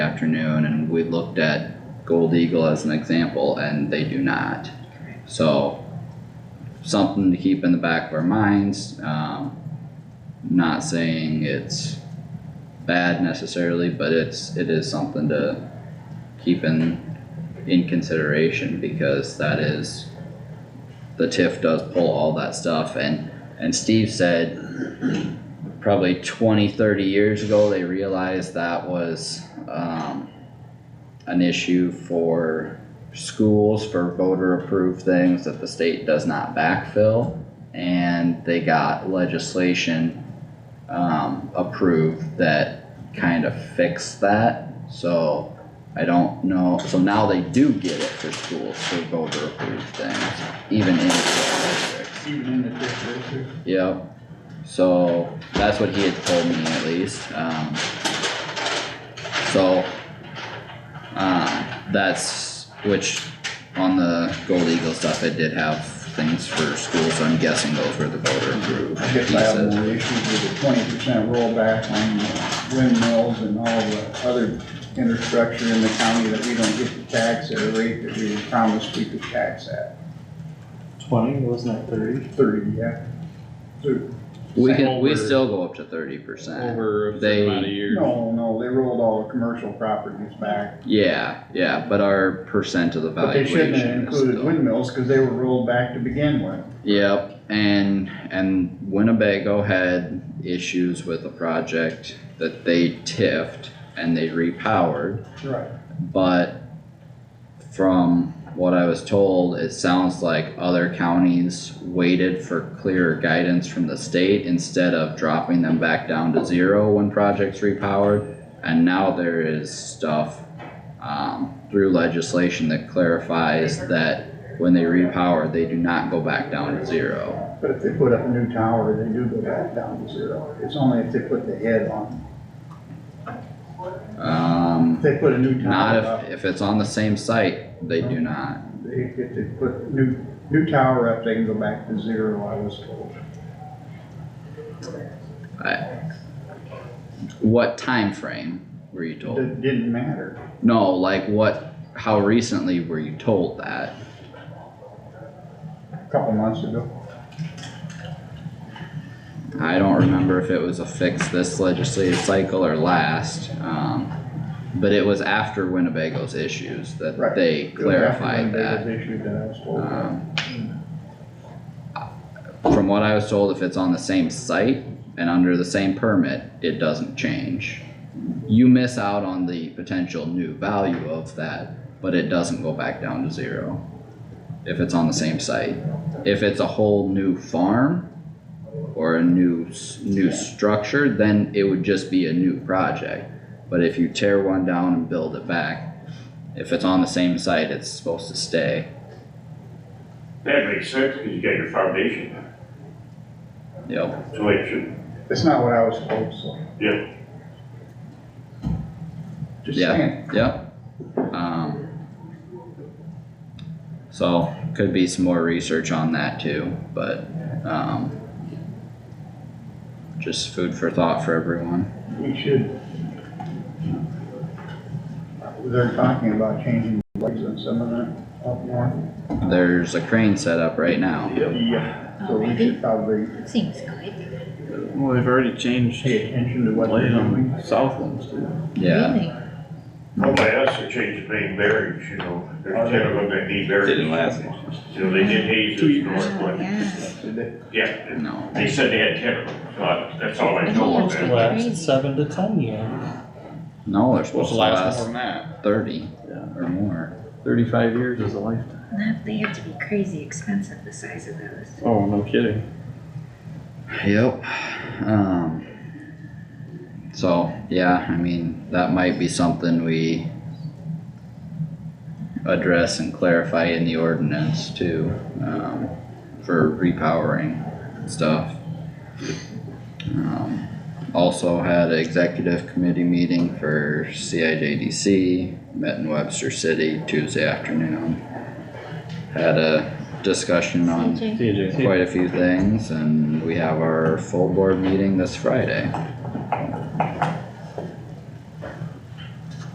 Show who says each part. Speaker 1: afternoon and we looked at Gold Eagle as an example and they do not. So something to keep in the back of our minds, um, not saying it's bad necessarily, but it's, it is something to keep in, in consideration because that is, the TIF does pull all that stuff and, and Steve said probably 20, 30 years ago, they realized that was, um, an issue for schools for voter approved things that the state does not backfill. And they got legislation, um, approved that kind of fixed that. So I don't know, so now they do get it for schools for voter approved things, even in districts.
Speaker 2: Even in the district.
Speaker 1: Yep, so that's what he had told me at least, um. So. Uh, that's, which on the Gold Eagle stuff, it did have things for schools, so I'm guessing those were the voter approved
Speaker 2: I guess I have
Speaker 1: pieces.
Speaker 2: more issues with the twenty percent rollback on the windmills and all the other infrastructure in the county that we don't get to tax at a rate that we promised we could tax at,
Speaker 3: Twenty, wasn't it thirty?
Speaker 2: thirty, yeah. Thirty.
Speaker 1: We can, we
Speaker 4: Over-
Speaker 1: still go up to thirty percent,
Speaker 4: over a
Speaker 1: They-
Speaker 4: certain amount of years.
Speaker 2: No, no, they rolled all the commercial properties back,
Speaker 1: yeah, yeah, but our percent of the
Speaker 2: but they
Speaker 1: valuation
Speaker 2: shouldn't have
Speaker 1: is
Speaker 2: included
Speaker 1: still-
Speaker 2: windmills, cause they were rolled back to begin with.
Speaker 1: Yep, and, and Winnebago had issues with a project that they tiffed and they repowered,
Speaker 2: Right.
Speaker 1: but from what I was told, it sounds like other counties waited for clearer guidance from the state instead of dropping them back down to zero when projects repowered. And now there is stuff, um, through legislation that clarifies that when they repower, they do not go back down to zero.
Speaker 2: But if they put up a new tower, they do go back down to zero, it's only if they put the head on, if
Speaker 1: Um,
Speaker 2: they put a new tower up.
Speaker 1: not if, if it's on the same site, they do not.
Speaker 2: They get to put new, new tower up, they can go back to zero, I was told.
Speaker 1: What time frame were you told?
Speaker 2: It didn't matter.
Speaker 1: No, like what, how recently were you told that?
Speaker 2: A couple months ago,
Speaker 1: I don't remember if it was a fix this legislative cycle or last, um, but it was after Winnebago's issues that
Speaker 2: Right.
Speaker 1: they
Speaker 2: It was after
Speaker 1: clarified that.
Speaker 2: Winnebago's issue that I was told.
Speaker 1: Um, From what I was told, if it's on the same site and under the same permit, it doesn't change. You miss out on the potential new value of that, but it doesn't go back down to zero. If it's on the same site. If it's a whole new farm or a new, s- new structure, then it would just be a new project. But if you tear one down and build it back, if it's on the same site, it's supposed to stay.
Speaker 5: That makes sense, because you got your foundation,
Speaker 1: Yep.
Speaker 5: so it should,
Speaker 2: That's not what I was told, so.
Speaker 5: Yeah.
Speaker 2: Just
Speaker 1: Yeah.
Speaker 2: saying,
Speaker 1: Yep. Um. So, could be some more research on that too, but, um. Just food for thought for everyone.
Speaker 2: we should. They're talking about changing lights on some of that up north.
Speaker 1: There's a crane set up right now.
Speaker 2: Yeah. So we
Speaker 6: Already?
Speaker 2: should probably
Speaker 6: Seems good.
Speaker 4: Well, they've already changed
Speaker 2: pay attention to what they're doing.
Speaker 4: Southlands too.
Speaker 1: Yeah,
Speaker 6: Really?
Speaker 5: well, by us, they changed the main bearings, you know, there's ten of them that need bearings.
Speaker 4: Didn't last.
Speaker 5: You know, they did
Speaker 4: Two
Speaker 5: Hayes'
Speaker 4: years.
Speaker 5: north
Speaker 6: Oh,
Speaker 5: one,
Speaker 6: yeah.
Speaker 5: yeah,
Speaker 1: no,
Speaker 5: they said they had ten of them, so I- that's all I know of that.
Speaker 3: Last seven to ten years.
Speaker 1: no, they're supposed
Speaker 4: Supposed
Speaker 1: to
Speaker 4: last more
Speaker 1: last
Speaker 4: than that.
Speaker 1: thirty
Speaker 4: Yeah.
Speaker 1: or more.
Speaker 4: Thirty-five years is a lifetime.
Speaker 6: That- They have to be crazy expensive, the size of those.
Speaker 4: Oh, no kidding.
Speaker 1: Yep, um. So, yeah, I mean, that might be something we. Address and clarify in the ordinance too, um, for repowering stuff. Um, also had an executive committee meeting for CIJDC, met in Webster City Tuesday afternoon. Had a discussion on
Speaker 6: CJ.
Speaker 4: TJ.
Speaker 1: quite a few things and we have our full board meeting this Friday.